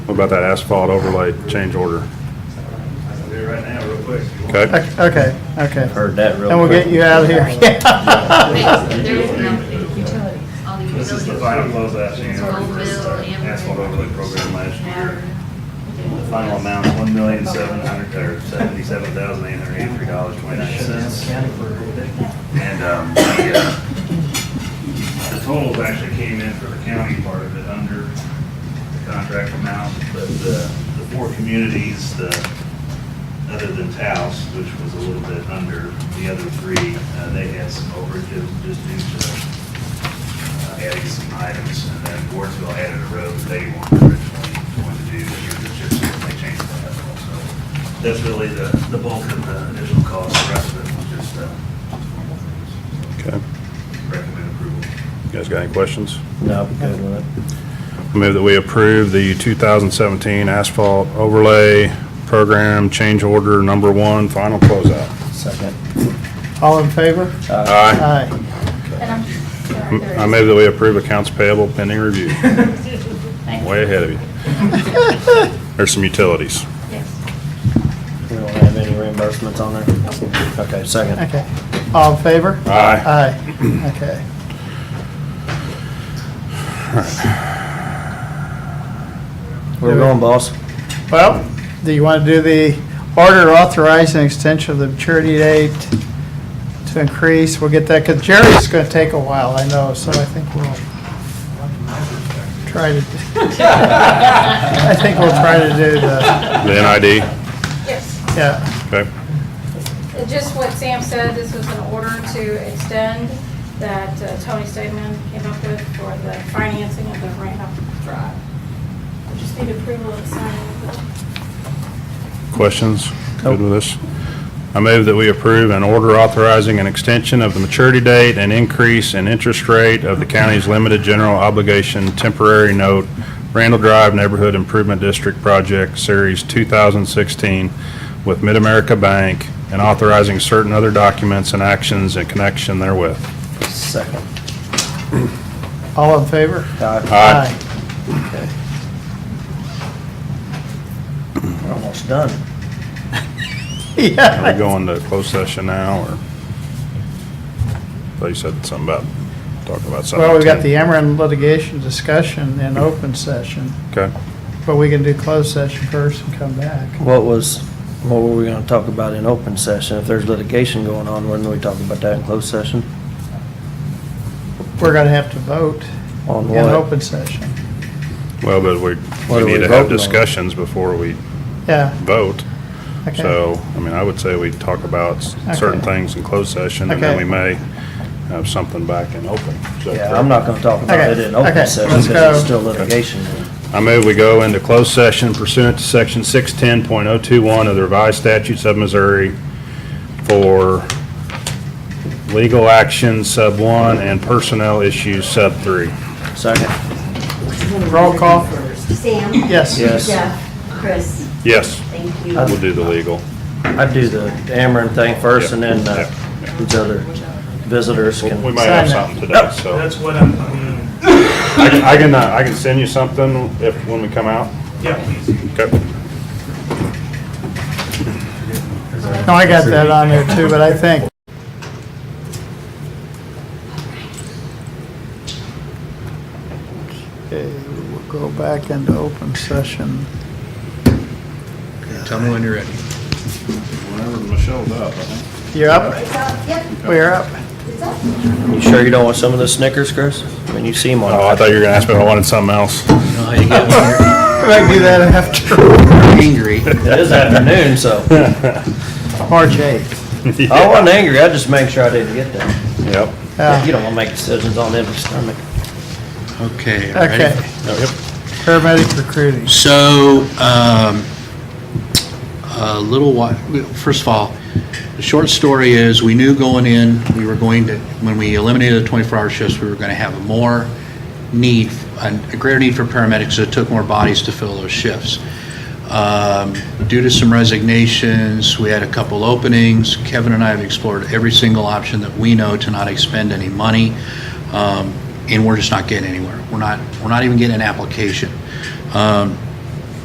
What about that asphalt overlay change order? I can do it right now, real quick. Okay, Okay, okay. Heard that real quick. And we'll get you out of here. Wait, There is no utilities, all the This utilities. is the final closeout, you know, for Bill, the asphalt overlay program last year. The The final amount, one million, seven hundred, or seventy-seven thousand, eight hundred eighty-three dollars, twenty-nine cents. And, um, the, uh, the totals actually came in for the county part of it under the contract amount, but the, the four communities, the, other than Taos, which was a little bit under the other three, uh, they had some overages just due to uh, adding some items, and then Wardsville added a road that they weren't originally going to do, but it's just, they changed that also. That's really the, the bulk of the initial cost, the rest of it was just, uh, normal things. okay. Recommend approval. You guys got any questions? No, I'm good with Move that we approve the 2017 asphalt overlay program change order number one, final closeout. it. Second. All in favor? Aye. Aye. And I'm, sorry, there I is- move that we approve accounts payable pending review. Thank you. Way ahead of you. There's some utilities. Yes. We don't have any reimbursements on there? Okay, second. Okay. All in favor? Aye. Aye. Okay. We're going, boss. Well, do you want to do the order authorizing extension of the maturity date to increase? We'll get that, because Jerry's going to take a while, I know, so I think we'll try to, I think we'll try to do the, The NID, Yes, yeah, okay. and just what Sam said, this was an order to extend that uh, Tony Stegman came up with for the financing of the Randolph Drive. We just need approval and signing of the Questions? Good with this? I move that we approve an order authorizing an extension of the maturity date and increase in interest rate of the county's limited general obligation temporary note Randall Drive Neighborhood Improvement District Project Series 2016 with Mid-America Bank and authorizing certain other documents and actions in connection therewith. Second. all in favor? Aye. Aye. Okay. We're almost done. Yeah. Are we going to closed session now, or? They said something about, talking about something. Well, we've got the Ameren litigation discussion in open session, Okay. but we can do closed session first and come back. What was, what were we gonna talk about in open session? If there's litigation going on, wouldn't we talk about that in closed session? We're going to have to vote On in what? open session. Well, but we, are we need we to have voting on? discussions before we Yeah, vote. okay. So, I mean, I would say we talk about s- certain Okay. things in closed session, and then Okay. we may have something back in open. Is that Yeah, I'm not gonna talk about it Okay, in open okay, session let's because it's go. still litigation. I move we go into closed session pursuant to section 610.021 of the revised statutes of Missouri for legal action sub 1 and personnel issues sub 3. Second, Roll call. Sam? Yes. yes. Jeff? Chris? Yes, Thank you. we'll do the legal. I'd do the Ameren thing first and then uh, Yeah, these other visitors can. We might have Sign that. something today, so. That's what I'm, I mean, I can, I can, uh, I can send you something if, when we come out. yeah, please. Okay. No, I got that on there too, but I think Okay, we'll go back into open session. Tell me when you're ready. Whenever Michelle's up, I think. You're up? It's up, yep, We're up. it's up. You sure you don't want some of the Snickers, Chris? I mean, you seem on. Oh, I thought you were gonna ask me if I wanted something else. No, Oh, you get when We might do that after you're angry. It is afternoon, so. March 8th. I wasn't angry, I just make sure I didn't get that. Yep. Yeah. You don't wanna make decisions on empty stomach. Okay, are you Okay, ready? Yep. paramedic recruiting. So, um, a little while, first of all, the short story is, we knew going in, we were going to, when we eliminated the 24-hour shifts, we were going to have more need, a greater need for paramedics, so it took more bodies to fill those shifts. Um, Due to some resignations, we had a couple openings. Kevin and I have explored every single option that we know to not expend any money, um, and we're just not getting anywhere. We're not, we're not even getting an application. Um,